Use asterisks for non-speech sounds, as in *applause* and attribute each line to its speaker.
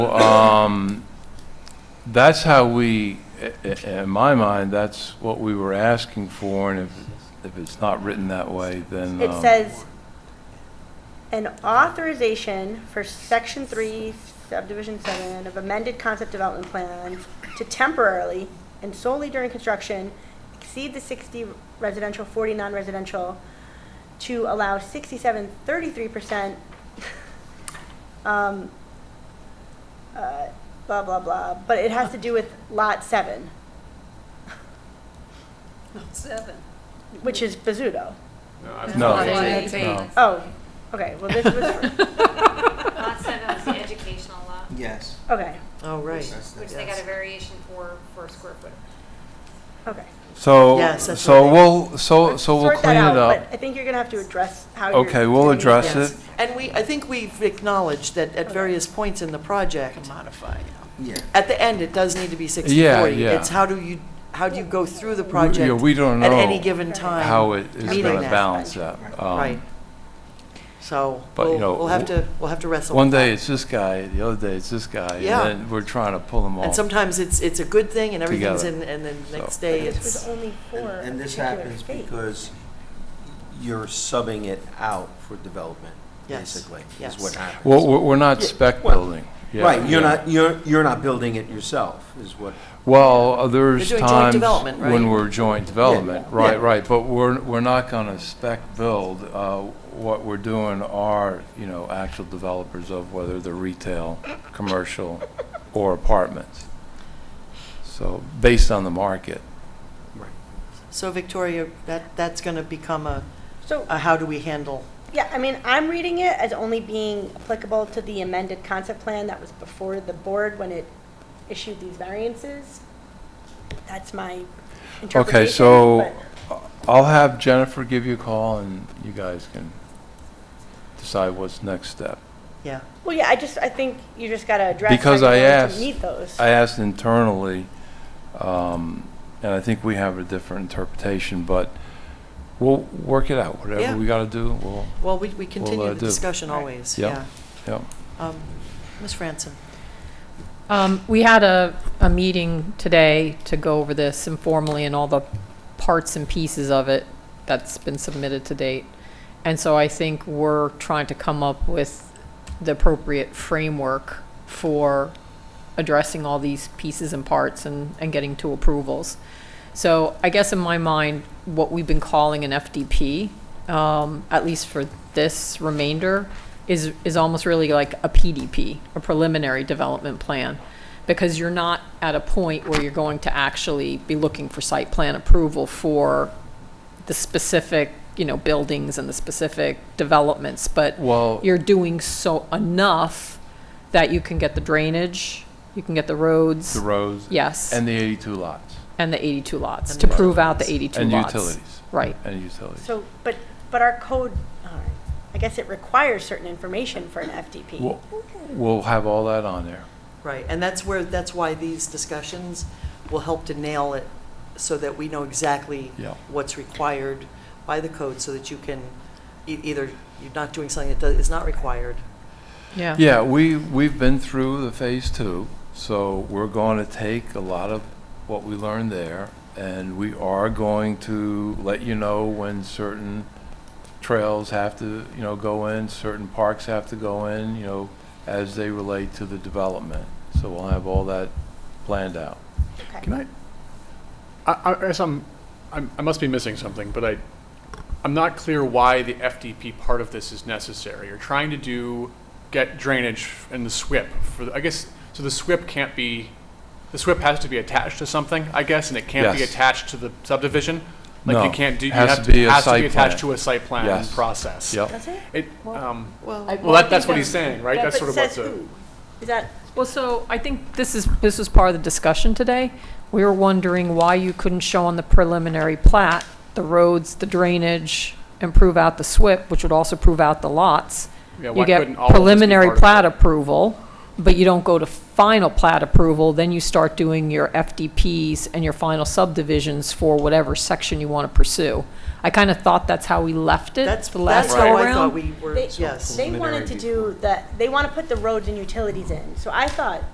Speaker 1: Um, That's how we, i- i- in my mind, that's what we were asking for, and if, if it's not written that way, then.
Speaker 2: It
Speaker 1: um,
Speaker 2: says, an authorization for section three, subdivision seven of amended concept development plan to temporarily and solely during construction exceed the sixty residential, forty non-residential to allow sixty-seven, thirty-three percent, *laughs* um, uh, blah, blah, blah, but it has to do with lot seven,
Speaker 3: Seven.
Speaker 2: which is Bizzuto.
Speaker 1: No.
Speaker 4: Lot
Speaker 3: That's
Speaker 4: eight.
Speaker 1: no.
Speaker 2: Oh, okay, well, this was,
Speaker 5: Lot seven was the educational lot,
Speaker 6: Yes.
Speaker 2: okay,
Speaker 4: Oh, right.
Speaker 5: which they got a variation for, for square foot.
Speaker 2: okay.
Speaker 1: So,
Speaker 4: Yes, that's
Speaker 1: so
Speaker 4: what
Speaker 1: we'll, so, so we'll
Speaker 2: sort
Speaker 1: clean
Speaker 2: that
Speaker 1: it
Speaker 2: out,
Speaker 1: up.
Speaker 2: But I think you're gonna have to address how you're.
Speaker 1: Okay, we'll
Speaker 2: doing it.
Speaker 1: address
Speaker 4: Yes.
Speaker 1: it.
Speaker 4: And we, I think we've acknowledged that at various points in the project,
Speaker 3: Modify.
Speaker 6: Yeah.
Speaker 4: at the end, it does need to be 60/40.
Speaker 1: yeah.
Speaker 4: It's how do you, how do you go through the
Speaker 1: Yeah,
Speaker 4: project
Speaker 1: we don't
Speaker 4: at any
Speaker 1: know
Speaker 4: given time?
Speaker 1: how it is
Speaker 4: meeting
Speaker 1: going to
Speaker 4: that.
Speaker 1: balance that. Um,
Speaker 4: Right. So
Speaker 1: But, you
Speaker 4: we'll,
Speaker 1: know,
Speaker 4: we'll have
Speaker 1: w-
Speaker 4: to, we'll have to wrestle
Speaker 1: One
Speaker 4: with
Speaker 1: day
Speaker 4: that.
Speaker 1: it's this guy, the other day it's this guy, and
Speaker 4: Yeah.
Speaker 1: then we're trying to pull them all.
Speaker 4: And sometimes it's, it's a good thing and everything's in,
Speaker 1: Together.
Speaker 4: and then
Speaker 1: So-
Speaker 4: next
Speaker 2: But
Speaker 4: day
Speaker 2: This was
Speaker 4: it's,
Speaker 2: only for
Speaker 6: And
Speaker 2: a
Speaker 6: and this
Speaker 2: particular
Speaker 6: happens
Speaker 2: state.
Speaker 6: because you're subbing it out for development,
Speaker 4: Yes.
Speaker 6: basically, is
Speaker 4: Yes.
Speaker 6: what happens.
Speaker 1: Well, we're, we're not spec
Speaker 6: well,
Speaker 1: building. Yeah,
Speaker 6: Right, you're
Speaker 1: yeah.
Speaker 6: not, you're, you're not building it yourself, is what,
Speaker 1: Well, uh, there's
Speaker 4: We're doing joint
Speaker 1: times
Speaker 4: development, right?
Speaker 1: when we're joint development,
Speaker 6: Yeah,
Speaker 1: right,
Speaker 6: yeah.
Speaker 1: right, but we're, we're not gonna spec build. Uh, What we're doing are, you know, actual developers of whether they're retail, commercial, or apartments. So, based on the market.
Speaker 4: so Victoria, that, that's going to become a,
Speaker 2: So,
Speaker 4: a how do we handle?
Speaker 2: yeah, I mean, I'm reading it as only being applicable to the amended concept plan that was before the board when it issued these variances. That's my interpretation.
Speaker 1: Okay, so
Speaker 2: but-
Speaker 1: I'll have Jennifer give you a call and you guys can decide what's next step.
Speaker 4: Yeah,
Speaker 2: Well, yeah, I just, I think you just gotta address.
Speaker 1: Because
Speaker 2: how you're
Speaker 1: I
Speaker 2: going to
Speaker 1: asked-
Speaker 2: Meet those.
Speaker 1: I asked internally, um, and I think we have a different interpretation, but we'll work it out.
Speaker 4: Yeah.
Speaker 1: Whatever we got to do, we'll,
Speaker 4: well, we, we
Speaker 1: uh,
Speaker 4: continue the
Speaker 1: do.
Speaker 4: discussion
Speaker 2: Right.
Speaker 4: always,
Speaker 1: Yeah.
Speaker 4: yeah.
Speaker 1: yeah.
Speaker 4: Um, Ms. Franson?
Speaker 7: Um, We had a, a meeting today to go over this informally and all the parts and pieces of it that's been submitted to date. And so I think we're trying to come up with the appropriate framework for addressing all these pieces and parts and, and getting to approvals. So I guess in my mind, what we've been calling an FDP, um, at least for this remainder, is, is almost really like a PDP, a preliminary development plan. Because you're not at a point where you're going to actually be looking for site plan approval for the specific, you know, buildings and the specific developments, but
Speaker 1: Well,
Speaker 7: you're doing so enough that you can get the drainage, you can get the roads,
Speaker 1: the roads
Speaker 7: yes,
Speaker 1: and the 82 lots
Speaker 7: and the 82 lots,
Speaker 4: And
Speaker 7: to
Speaker 4: the
Speaker 7: prove out the
Speaker 4: roads.
Speaker 7: 82
Speaker 1: and
Speaker 7: lots.
Speaker 1: utilities,
Speaker 7: Right.
Speaker 1: and utilities.
Speaker 2: So, but, but our code, all right, I guess it requires certain information for an FDP.
Speaker 1: We'll, we'll have all that on there.
Speaker 4: Right, and that's where, that's why these discussions will help to nail it so that we know exactly
Speaker 1: Yeah.
Speaker 4: what's required by the code so that you can, e- either you're not doing something that does- is not required.
Speaker 7: Yeah.
Speaker 1: Yeah, we, we've been through the phase two, so we're going to take a lot of what we learned there, and we are going to let you know when certain trails have to, you know, go in, certain parks have to go in, you know, as they relate to the development. So we'll have all that planned out.
Speaker 2: Okay.
Speaker 8: Can I, I, I guess I'm, I'm, I must be missing something, but I, I'm not clear why the FDP part of this is necessary. You're trying to do, get drainage and the SWIP for, the- I guess, so the SWIP can't be, the SWIP has to be attached to something, I guess, and it can't be
Speaker 1: Yes.
Speaker 8: attached to the subdivision?
Speaker 1: No,
Speaker 8: Like you can't do, you
Speaker 1: has to
Speaker 8: have to,
Speaker 1: be a
Speaker 8: has to
Speaker 1: site
Speaker 8: be
Speaker 1: plan.
Speaker 8: attached to a site plan
Speaker 1: Yes.
Speaker 8: process.
Speaker 1: Yep.
Speaker 2: Does it?
Speaker 8: It, um,
Speaker 4: Well,
Speaker 8: well, that, that's what he's saying, right? That's
Speaker 2: But
Speaker 8: sort of
Speaker 2: it
Speaker 8: what
Speaker 2: says
Speaker 8: the.
Speaker 2: who? Is that,
Speaker 7: Well, so I think this is, this was part of the discussion today. We were wondering why you couldn't show on the preliminary plat the roads, the drainage, and prove out the SWIP, which would also prove out the lots.
Speaker 8: Yeah,
Speaker 7: You
Speaker 8: why
Speaker 7: get
Speaker 8: couldn't all of this be
Speaker 7: preliminary
Speaker 8: part of it?
Speaker 7: plat approval, but you don't go to final plat approval, then you start doing your FDPs and your final subdivisions for whatever section you want to pursue. I kind of thought that's how we left it
Speaker 4: That's,
Speaker 7: the last
Speaker 4: that's
Speaker 7: go
Speaker 4: how
Speaker 7: around.
Speaker 4: I thought we were,
Speaker 2: They-
Speaker 4: yes.
Speaker 2: They wanted to do that, they want to put the roads and utilities in, so I thought